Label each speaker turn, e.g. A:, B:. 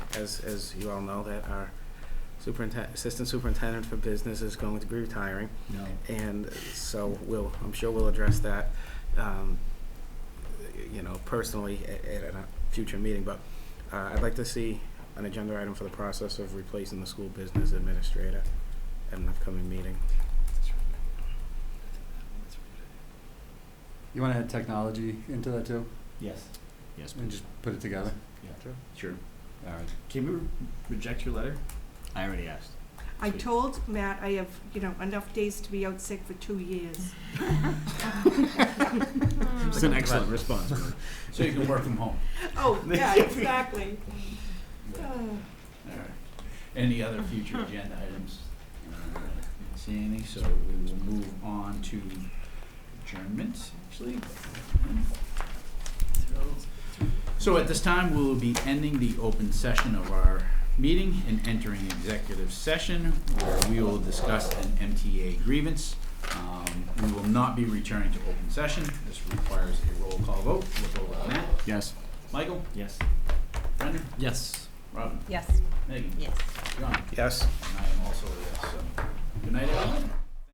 A: as, as you all know, that our superintendent, assistant superintendent for business is going to be retiring.
B: No.
A: And so we'll, I'm sure we'll address that, um, you know, personally at, at a future meeting. But uh, I'd like to see an agenda item for the process of replacing the school business administrator at an upcoming meeting.
B: You want to add technology into that too,
C: Yes. Yes.
B: and just put it together?
C: Sure.
B: All right.
C: Can we re- reject your letter? I already asked.
D: I
C: Sweet.
D: told Matt I have, you know, enough days to be out sick for two years.
C: It's an excellent response.
B: So you can work from home.
D: Oh, yeah, exactly. Oh.
C: All right. Any other future agenda items? Uh, didn't See any, so we will move on to adjournment, actually. So at this time, we will be ending the open session of our meeting and entering executive session where we will discuss an MTA grievance. Um, we will not be returning to open session. This requires a roll call vote. We'll go with Matt.
B: Yes.
C: Michael?
E: Yes.
C: Brendan?
E: Yes.
C: Robin?
F: Yes,
C: Megan?
F: yes.
C: John?
A: Yes.
C: um, And I am also a yes, so. Good night, everyone.